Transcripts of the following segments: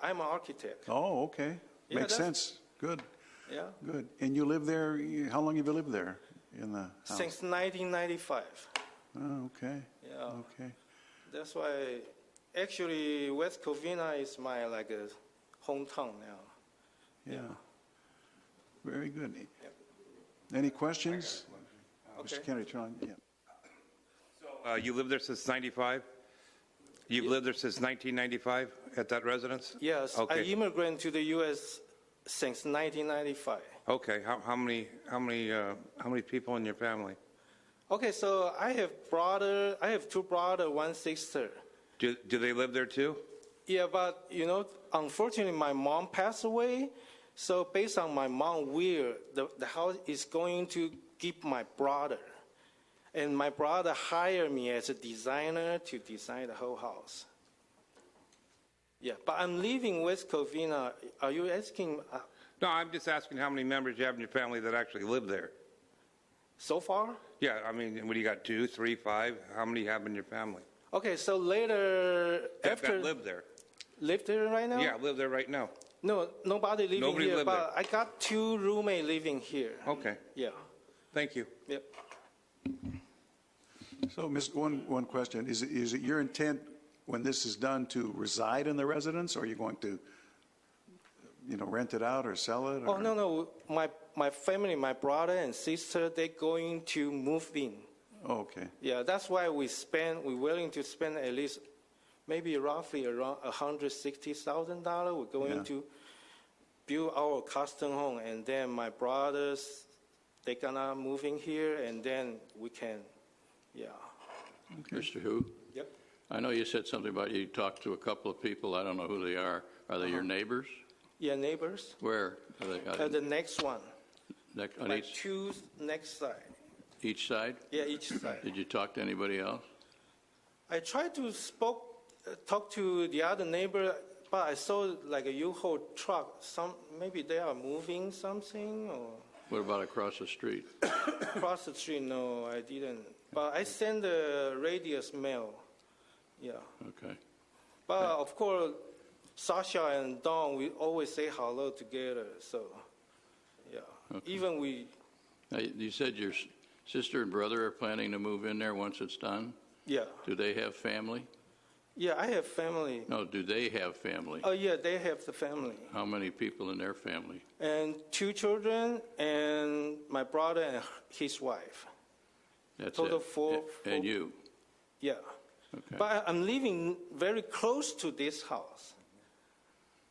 I'm an architect, Oh, okay. Yeah, Makes that's- sense. Good, yeah, good. And you live there, you- how long have you lived there in the house? since 1995. Oh, okay, Yeah, okay. that's why, actually, West Covina is my, like, uh, hometown now. Yeah. Very good. Any questions? Okay. Mr. Kennedy, turn on, yeah. Uh, You lived there since 95? You've lived there since 1995 at that residence? Yes, I Okay, immigrated to the U.S. since 1995. okay. How how many, how many, uh, how many people in your family? Okay, so I have brother, I have two brother, one sister. Do do they live there too? Yeah, but you know, unfortunately, my mom passed away. So based on my mom will, the, the house is going to give my brother. And my brother hired me as a designer to design the whole house. Yeah, but I'm leaving West Covina. Are you asking uh, No, I'm just asking how many members you have in your family that actually live there? so far? Yeah, I mean, what do you got, two, three, five? How many you have in your family? Okay, so later that- after That live there? live there right now? Yeah, live there right now. No, nobody living Nobody here. live But I got two roommate living here. Okay, Yeah. thank you. Yep. So, Ms., one, one question. Is it, is it your intent, when this is done, to reside in the residence? Or are you going to, you know, rent it out or sell it? Oh or- no no, my my family, my brother and sister, they going to move in. Oh, Okay, Yeah, that's why we spend. We're willing to spend at least, maybe roughly around hundred sixty thousand dollar. We're going Yeah. to build our custom home, and then my brothers, they gonna move in here, and then we can, yeah. Mr. Who? Yep. I know you said something about you talked to a couple of people. I don't know who they are. Are they your Uh-huh. neighbors? Yeah, neighbors. Where? Are they Uh, on, the next one, next, on like each, two next side. each side? Yeah, each side. Did you talk to anybody else? I tried to spoke, uh, talk to the other neighbor, but I saw like a U-Haul truck. Some maybe they are moving something or What about across the street? across the street. No, I didn't. But I sent the radius mail. Yeah, Okay. but of course, Sasha and Don, we always say hello together. So, yeah, even we, Now, you you said your s- sister and brother are planning to move in there once it's done? yeah, Do they have family? yeah. I have family. No, do they have family? Oh yeah, they have the family. How many people in their family? and two children and my brother and his wife. That's Total it. four- A- four- And you? Yeah. Okay. But I- I'm living very close to this house.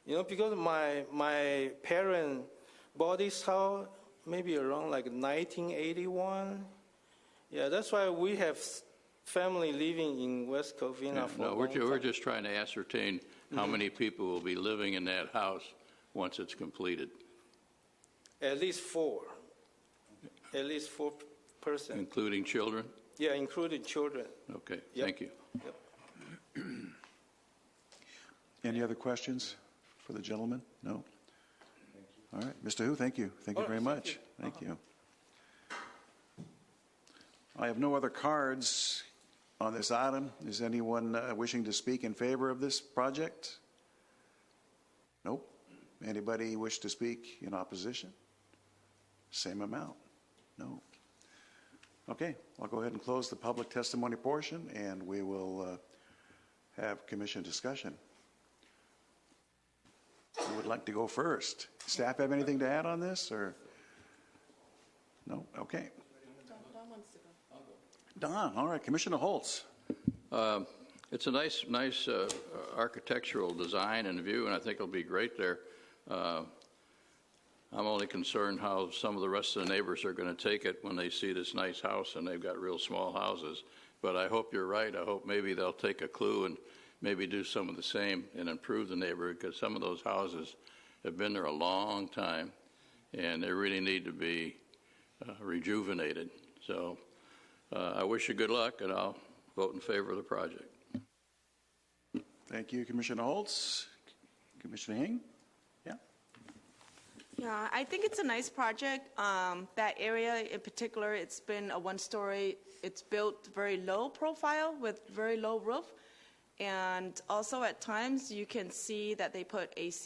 You know, because my my parent bought this house maybe around like 1981. Yeah, that's why we have s- family living in West Covina Yeah, for a No, we're, long ju- we're time. just trying to ascertain how many people will be living in that house once it's completed, at least four, Mm. at least four p- person. including children? Yeah, including children. Okay, Yep. thank you. Yep. Any other questions for the gentleman? No? All right, Mr. Who, thank you. Thank you All right, very thank much. you. Thank you. I have no other cards on this item. Is anyone uh, wishing to speak in favor of this project? Nope. Anybody wish to speak in opposition? Same amount? No. Okay, I'll go ahead and close the public testimony portion, and we will uh, have commission discussion. Who would like to go first? Staff have anything to add on this, or? No, okay. Don, all right, Commissioner Holtz. Um, It's a nice, nice uh, architectural design and view, and I think it'll be great there. Uh, I'm only concerned how some of the rest of the neighbors are going to take it when they see this nice house and they've got real small houses. But I hope you're right. I hope maybe they'll take a clue and maybe do some of the same and improve the neighborhood because some of those houses have been there a long time and they really need to be uh, rejuvenated. So uh, I wish you good luck and I'll vote in favor of the project. Thank you, Commissioner Holtz. Commissioner Hing? Yeah? Yeah, I think it's a nice project. Um, that area in particular, it's been a one-story, it's built very low profile with very low roof. And also at times, you can see that they put AC